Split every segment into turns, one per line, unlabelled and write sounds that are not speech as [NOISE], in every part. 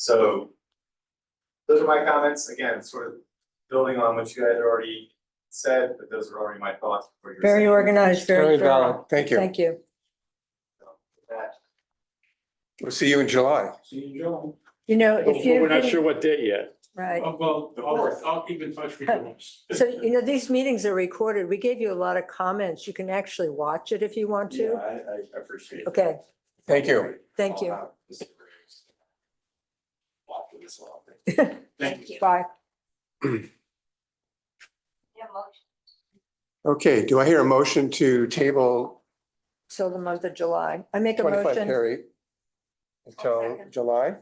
So those are my comments, again, sort of building on what you guys already said, but those are already my thoughts. before your
Very
session.
organized, very
Very
thorough.
valid. Thank you.
Thank you.
So, with That,
We'll see you in July.
see you, Joe.
You know,
But
if you.
We're not sure what date yet.
Right.
Oh, Well, I'll, I'll keep in touch with you.
So, you know, these meetings are recorded. We gave you a lot of comments. You can actually watch it if you want
Yeah,
to.
I, I appreciate it.
Okay,
Thank you.
thank you.
I'll have this for you. Walk with this
[LAUGHS]
one. Thank you.
Bye.
Okay, do I hear a motion to table
Till the month of July. I make a
twenty-five
motion
Perry until
second.
July?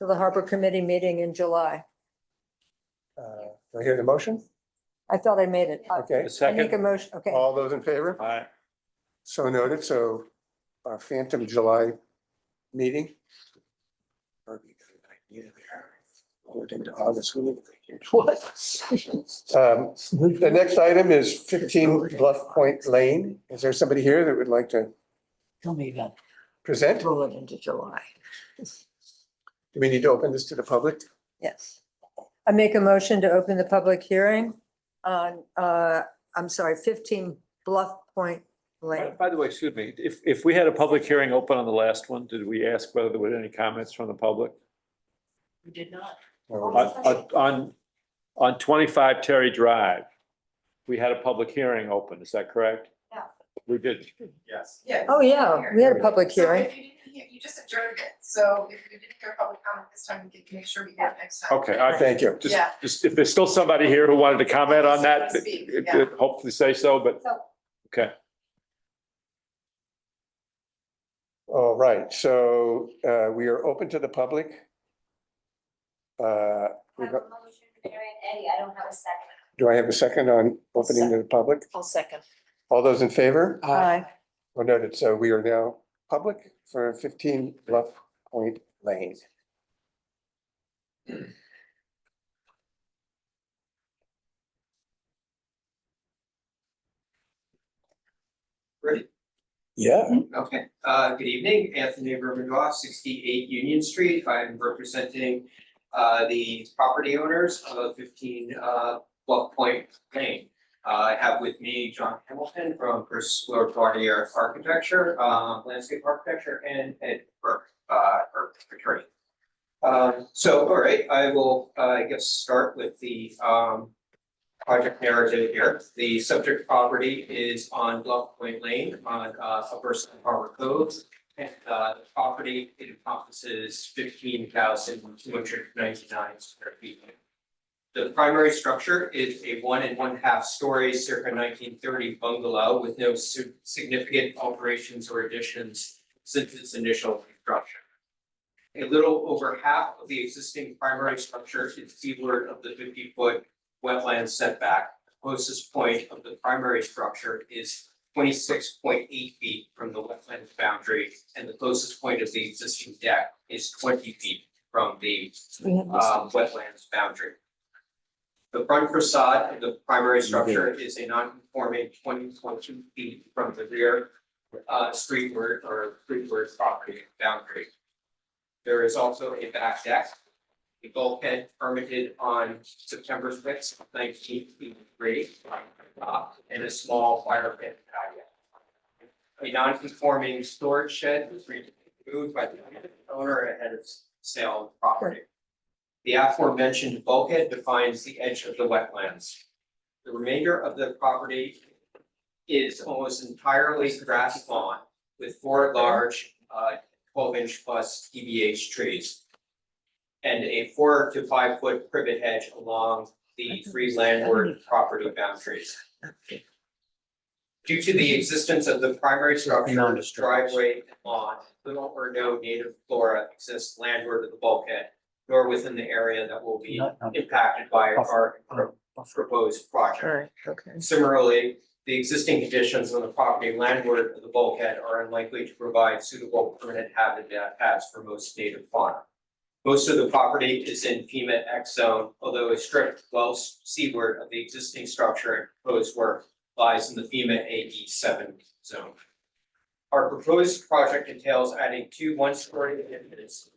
to the Harbor Committee meeting in July.
Uh, Do I hear the motion?
I thought I made it. I-
Okay,
A
I make a
second.
motion, okay.
all those in favor?
Aye.
So noted, so our phantom July meeting. Um, Moved into August. What? Um, The next item is fifteen Bluff Point Lane. Is there somebody here that would like to
Tell me about
present?
Roll it into July.
Do we need to open this to the public?
Yes. I make a motion to open the public hearing on, uh, I'm sorry, fifteen Bluff Point
By
Lane.
by the way, excuse me, if, if we had a public hearing open on the last one, did we ask whether there were any comments from the public?
We did not.
No.
On, on- on, on twenty-five Terry Drive, we had a public hearing open, is that correct?
Yeah.
We did.
Yes.
Yeah.
Oh, yeah, we had a public
So
hearing.
if you didn't hear, you just adjourned it, so if you didn't hear public comment this time, you can make sure we hear it next time.
Okay, I
Thank
think,
you.
just,
Yeah.
just, if there's still somebody here who wanted to comment on that,
Speak,
it-
yeah.
it- hopefully say so, but,
So-
okay.
All right, so uh, we are open to the public. Uh,
I
we
have a
got-
motion from Mary and Eddie, I don't have a second.
Do I have a second on opening to the public?
I'll second.
All those in favor?
Aye.
Well noted, so we are now public for 15 Bluff Point Lane.
Ready?
Yeah.
Okay, uh, good evening, Anthony Rubendoff, sixty-eight Union Street. I'm representing uh, the property owners of fifteen uh, Bluff Point Lane. Uh, I have with me John Hamilton from Chris Lord Barnier Architecture, uh, Landscape Architecture, and Ed Burke, uh, Burke Attorney. Um, so, all right, I will, uh, I guess, start with the, um, project narrative here. The subject property is on Bluff Point Lane on, uh, Upper Sun Harbor Cove. And, uh, the property encompasses fifteen thousand two hundred ninety-nine square feet. The primary structure is a one and one-half story circa nineteen thirty bungalow with no su- significant alterations or additions since its initial construction. A little over half of the existing primary structure is seaward of the fifty-foot wetland setback. The Closest point of the primary structure is twenty-six point eight feet from the wetland boundary, and the closest point of the existing deck is twenty feet from the
We had this-
um, wetlands boundary. The front facade of the primary structure is a non-conforming twenty point two feet from the rear uh, streetward or streetward property boundary. There is also a back deck. The bulkhead permitted on September sixth, nineteen eighty-three, uh, and a small fire pit patio. A non-conforming storage shed was removed by the owner ahead of sale of property. The aforementioned bulkhead defines the edge of the wetlands. The remainder of the property is almost entirely grass lawn with four large uh twelve inch plus TBH trees. And a four to five foot privet hedge along the three landward property boundaries. Due to the existence of the primary structure, driveway, and lawn, little or no native flora exists landward of the bulkhead, nor within the area that will be impacted by our pro- proposed project.
All right, okay.
Similarly, the existing conditions on the property landward of the bulkhead are unlikely to provide suitable permanent habitats for most native fauna. Most of the property is in FEMA X zone, although a strip well seaward of the existing structure and proposed work lies in the FEMA AD seven zone. Our proposed project entails adding two one-story additions